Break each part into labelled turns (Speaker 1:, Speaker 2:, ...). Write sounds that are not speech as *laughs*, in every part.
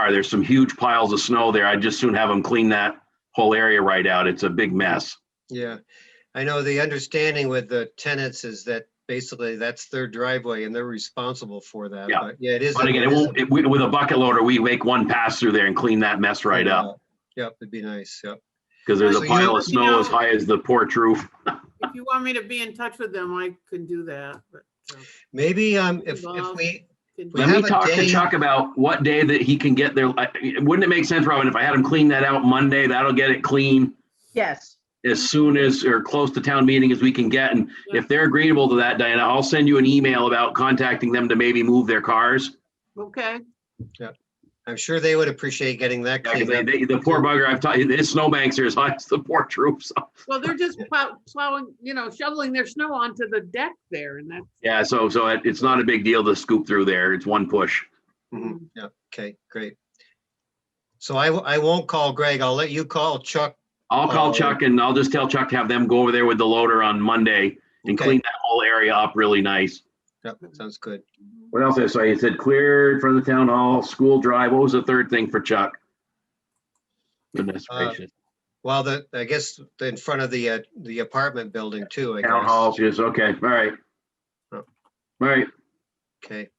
Speaker 1: are. There's some huge piles of snow there. I'd just soon have them clean that whole area right out. It's a big mess.
Speaker 2: Yeah, I know the understanding with the tenants is that basically that's their driveway and they're responsible for that.
Speaker 1: Yeah.
Speaker 2: But yeah, it is.
Speaker 1: But again, it
Speaker 2: is-
Speaker 1: won't, it- we- with a bucket loader, we make one pass through there and clean that mess right up.
Speaker 2: Yep, it'd be nice, yep.
Speaker 1: Because there's
Speaker 2: So
Speaker 1: a
Speaker 2: you-
Speaker 1: pile of
Speaker 3: you
Speaker 1: snow as
Speaker 3: know-
Speaker 1: high as the porch roof.
Speaker 3: If you want me to be in touch with them, I can do that, but. uh,
Speaker 2: Maybe um if if
Speaker 3: Well,
Speaker 2: we,
Speaker 3: can-
Speaker 2: We
Speaker 1: Let me
Speaker 2: have a
Speaker 1: talk to
Speaker 2: day-
Speaker 1: Chuck about what day that he can get there. I- Wouldn't it make sense, Robin, if I had him clean that out Monday? That'll get it clean
Speaker 4: Yes,
Speaker 1: as soon as, or close to town meeting as we can get. And if they're agreeable to that, Diana, I'll send you an email about contacting them to maybe move their cars.
Speaker 3: Okay,
Speaker 2: I'm sure they would appreciate getting that
Speaker 1: Yeah, 'cause
Speaker 2: cleaned
Speaker 1: they-
Speaker 2: up.
Speaker 1: they- The poor bugger, I've taught, his snowbanks are as high as the porch roof. so-
Speaker 3: well, they're just plow- plowing, you know, shoveling their snow onto the deck there and that's.
Speaker 1: *laughs* Yeah, so, so it- it's not a big deal to scoop through there. It's one push.
Speaker 2: Mhm, Yeah, okay, great. So I w- I won't call Greg. I'll let you call Chuck.
Speaker 1: I'll call
Speaker 2: Oh.
Speaker 1: Chuck and I'll just tell Chuck to have them go over there with the loader on Monday and
Speaker 2: Okay.
Speaker 1: clean that whole area up really nice.
Speaker 2: Yep, sounds good.
Speaker 1: What else? I saw you said cleared from the town hall, school drive. What was the third thing for Chuck? Goodness
Speaker 2: Uh,
Speaker 1: gracious.
Speaker 2: Well, the, I guess the- in front of the uh, the apartment building too, I
Speaker 1: Town hall,
Speaker 2: guess.
Speaker 1: yes, okay, all right.
Speaker 2: Yep.
Speaker 1: All right,
Speaker 2: Okay.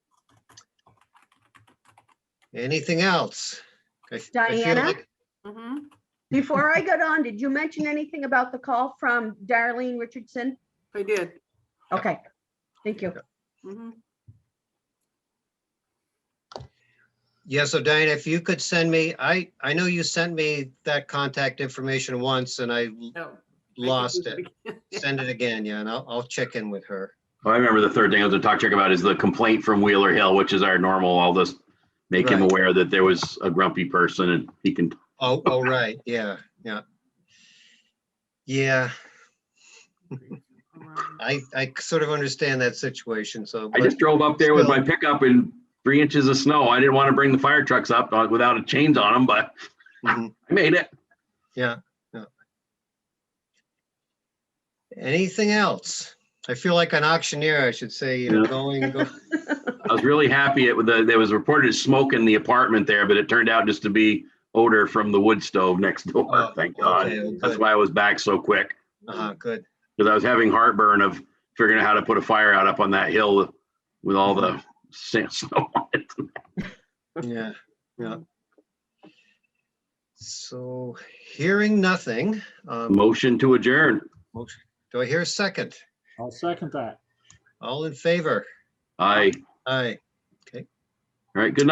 Speaker 2: Anything else? I- I feel
Speaker 4: Diana?
Speaker 2: like-
Speaker 3: Mhm.
Speaker 4: before I got on, did you mention anything about the call from Darlene Richardson?
Speaker 3: I did.
Speaker 4: Okay, thank you.
Speaker 3: Mhm.
Speaker 2: Yeah, so Diana, if you could send me, I, I know you sent me that contact information once and I l-
Speaker 3: No, I think
Speaker 1: *laughs*
Speaker 2: lost it.
Speaker 3: it.
Speaker 2: Send it again, yeah, and I'll, I'll check in with her.
Speaker 1: Well, I remember the third thing I was gonna talk to Chuck about is the complaint from Wheeler Hill, which is our normal, I'll just make him
Speaker 2: Right.
Speaker 1: aware that there was a grumpy person and he can,
Speaker 2: Oh, oh, right, yeah, yeah. Yeah, I, I sort of understand that situation, so.
Speaker 1: I
Speaker 2: but-
Speaker 1: just drove up there with my pickup in three inches of snow. I didn't wanna bring the fire trucks up uh, without a chains on them, but
Speaker 2: Mhm,
Speaker 1: *laughs* I made it.
Speaker 2: Yeah, yeah. Anything else? I feel like an auctioneer, I should say, you know,
Speaker 1: Yeah. *laughs*
Speaker 2: going, go-
Speaker 1: I was really happy it, the, there was reported as smoke in the apartment there, but it turned out just to be odor from the wood stove next door,
Speaker 2: Oh,
Speaker 1: thank God.
Speaker 2: okay, well,
Speaker 1: That's
Speaker 2: good.
Speaker 1: why I was back so quick,
Speaker 2: *laughs* uh-huh, good,
Speaker 1: because I was having heartburn of figuring out how to put a fire out up on that hill with all the sa- *laughs* snow on it.
Speaker 2: *laughs* yeah, yeah. Um, So, hearing nothing, um,
Speaker 1: Motion to adjourn.
Speaker 2: Motion. Do I hear a second?
Speaker 5: I'll second that.
Speaker 2: All in favor?
Speaker 1: Aye.
Speaker 2: Aye.
Speaker 1: All right, good night.